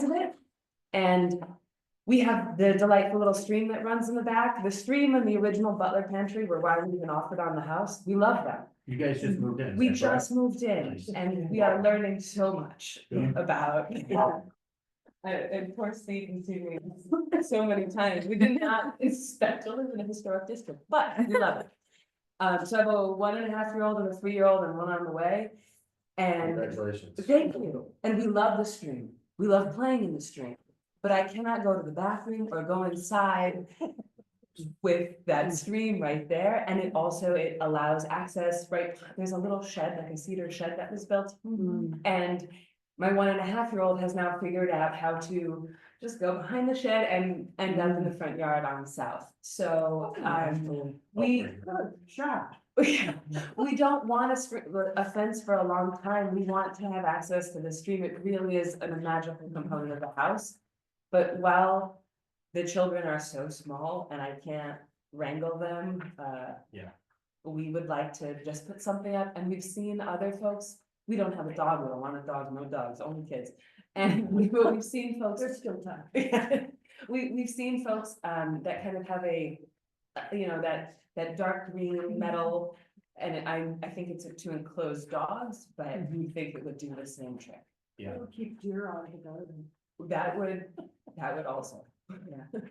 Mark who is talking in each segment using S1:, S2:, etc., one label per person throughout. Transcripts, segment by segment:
S1: sides of it. And we have the delightful little stream that runs in the back. The stream and the original Butler Pantry were why we even offered on the house. We love them.
S2: You guys just moved in. is
S1: We
S2: that correct?
S1: just moved in
S2: Nice.
S1: and we are learning so much
S2: Yeah.
S1: about. Uh, And poor Steve and Sue, we- so many times. We did not expect to live in a historic district, but we love it. Um, so I have a one and a half year old and a three year old and one on the way. And
S2: Congratulations.
S1: Thank you, and we love the stream, we love playing in the stream, but I cannot go to the bathroom or go inside. With that stream right there, and it also, it allows access, right, there's a little shed, like a cedar shed that was built.
S3: Mm-hmm.
S1: And my one and a half year old has now figured out how to just go behind the shed and end up in the front yard on the south, so, um, we. We don't want a str- a fence for a long time, we want to have access to the stream, it really is a magical component of the house. But while the children are so small and I can't wrangle them, uh.
S2: Yeah.
S1: We would like to just put something up, and we've seen other folks, we don't have a dog, we don't want a dog, no dogs, only kids. And we, but we've seen folks. There's still time. We, we've seen folks, um, that kind of have a, uh, you know, that, that dark green metal. And I, I think it's to enclose dogs, but we think it would do the same trick.
S2: Yeah.
S1: Keep deer out of the garden. That would, that would also, yeah. So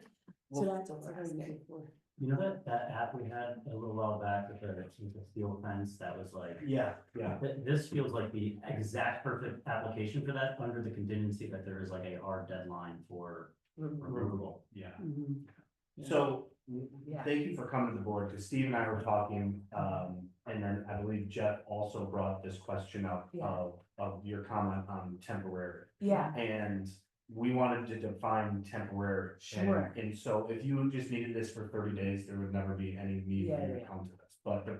S2: Well,
S1: that's what we're asking for.
S2: You know that, that app we had a little while back with the, with the steel fence that was like. Yeah, yeah. this feels like the exact perfect application for that, under the contingency that there is like a hard deadline for removal. Yeah.
S3: Mm-hmm.
S4: So,
S1: Yeah.
S4: thank you for coming to the board, because Steve and I were talking, um, and then I believe Jeff also brought this question up
S1: Yeah.
S4: of, of your comment on temporary.
S1: Yeah,
S4: And we wanted to define temporary. and-
S1: Sure.
S4: And so if you just needed this for thirty days, there would never be any need for
S1: Yeah,
S4: you to
S1: yeah.
S4: come to this. But the,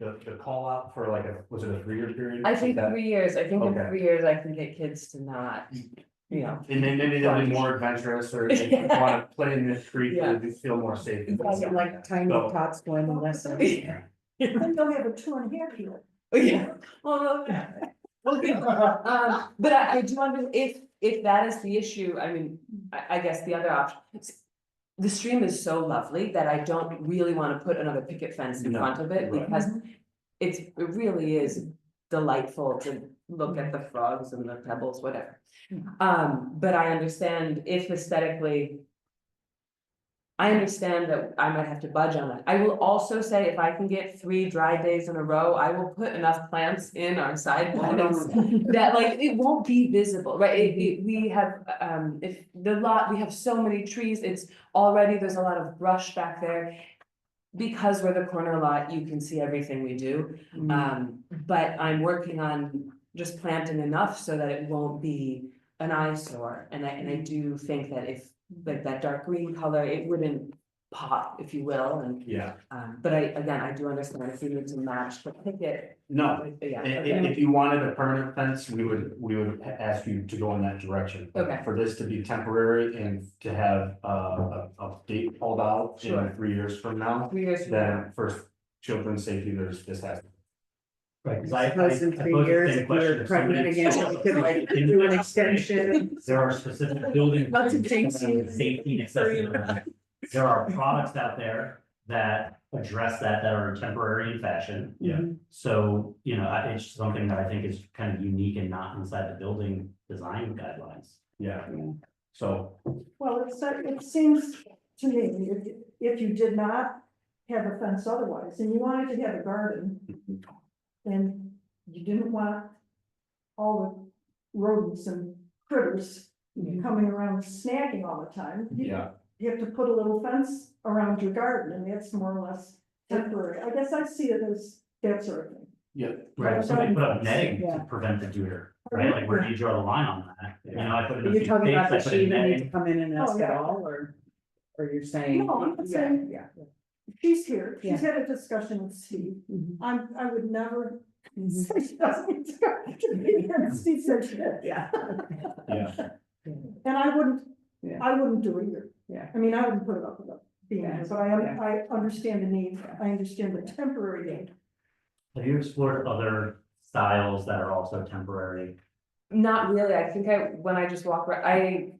S4: the, the call out for like a, was it a three-year period?
S1: I think
S4: That-
S1: three years, I think in
S4: Okay.
S1: three years I can get kids to not, you know,
S4: And then maybe they'll be more adventurous or they
S1: Yeah.
S4: wanna play in the street
S1: Yeah.
S4: or they feel more safe. and
S1: Yeah,
S4: stuff
S3: like
S4: that.
S3: tiny
S4: So-
S3: tots going to lesson.
S1: Yeah.
S3: Then they'll have a two and a half year.
S1: Oh, yeah, well, no, yeah. Well, good. Um, but I, I do wonder if, if that is the issue, I mean, I, I guess the other option. The stream is so lovely that I don't really wanna put another picket fence in
S4: No,
S1: front of it
S4: right.
S1: because it's, it really is delightful to look at the frogs and the pebbles, whatever. Um, but I understand if aesthetically. I understand that I might have to budge on it. I will also say if I can get three dry days in a row, I will put enough plants in our
S3: Mm-hmm.
S1: side sidewalks. That like, it won't be visible, right? It- it- we have, um, if the lot, we have so many trees, it's already, there's a lot of brush back there. Because we're the corner lot, you can see everything we do.
S3: Uh,
S1: Um,
S3: Mm-hmm.
S1: but I'm working on just planting enough so that it won't be an eyesore, and I, and I do think that if, like that dark green color, it wouldn't pop, if you will, and,
S4: Yeah.
S1: um, but I, again, I do understand if you need to match the picket.
S4: No,
S1: but Yeah,
S4: i- i- if,
S1: okay,
S4: you wanted a permanent fence, we would, we would a- ask you to go in that direction.
S1: Okay.
S4: For this to be temporary and to have uh, a, a date called out
S1: Sure.
S4: in three years from now,
S1: three years from now,
S4: then for children's safety, there's, this has.
S2: Right, because I. I-
S3: Suppose in
S2: I
S3: three
S2: posed the
S3: years
S2: same
S3: if
S2: question
S3: we're
S2: if somebody-
S3: pregnant again, we could, like, do an extension.
S2: There are specific buildings.
S3: Lots of things.
S2: Safety and accessibility. There are products out there that address that, that are temporary in fashion.
S4: Yeah.
S2: So, you know, I- it's something that I think is kind of unique and not inside the building design guidelines.
S4: Yeah,
S3: Yeah.
S4: so,
S3: Well, it's, uh, it seems to me, if, if you did not have a fence otherwise, and you wanted to have a garden, then you didn't want all the rodents and critters coming around snacking all the time. You-
S4: yeah,
S3: You have to put a little fence around your garden, and that's more or less temporary. I guess I see it as that sort of thing.
S4: yeah,
S2: Right, somebody put up netting
S3: Yeah.
S2: to prevent the deer, right? Like where do you draw the line on that? You know, I put in a
S5: You're
S2: few
S5: talking about
S2: stakes,
S5: that she
S2: I put in
S5: even need
S2: netting.
S5: to come in and
S3: Oh,
S5: ask at
S3: yeah.
S5: all, or, or you're saying?
S3: No, I'm not
S5: Yeah,
S3: saying-
S5: Yeah.
S3: She's here, she's had a discussion with Steve.
S5: Mhm.
S3: I'm, I would never
S5: Mm-hmm.
S3: say she doesn't need to go to be here, and Steve said she did.
S5: Yeah.
S4: yeah.
S3: And I wouldn't,
S5: Yeah.
S3: I wouldn't do it either.
S5: Yeah.
S3: I mean, I wouldn't put it up with it being
S5: Yeah.
S3: here, but I, I understand the need, I understand the temporary need.
S2: Have you explored other styles that are also temporary?
S1: Not really, I think I, when I just walk, ar- I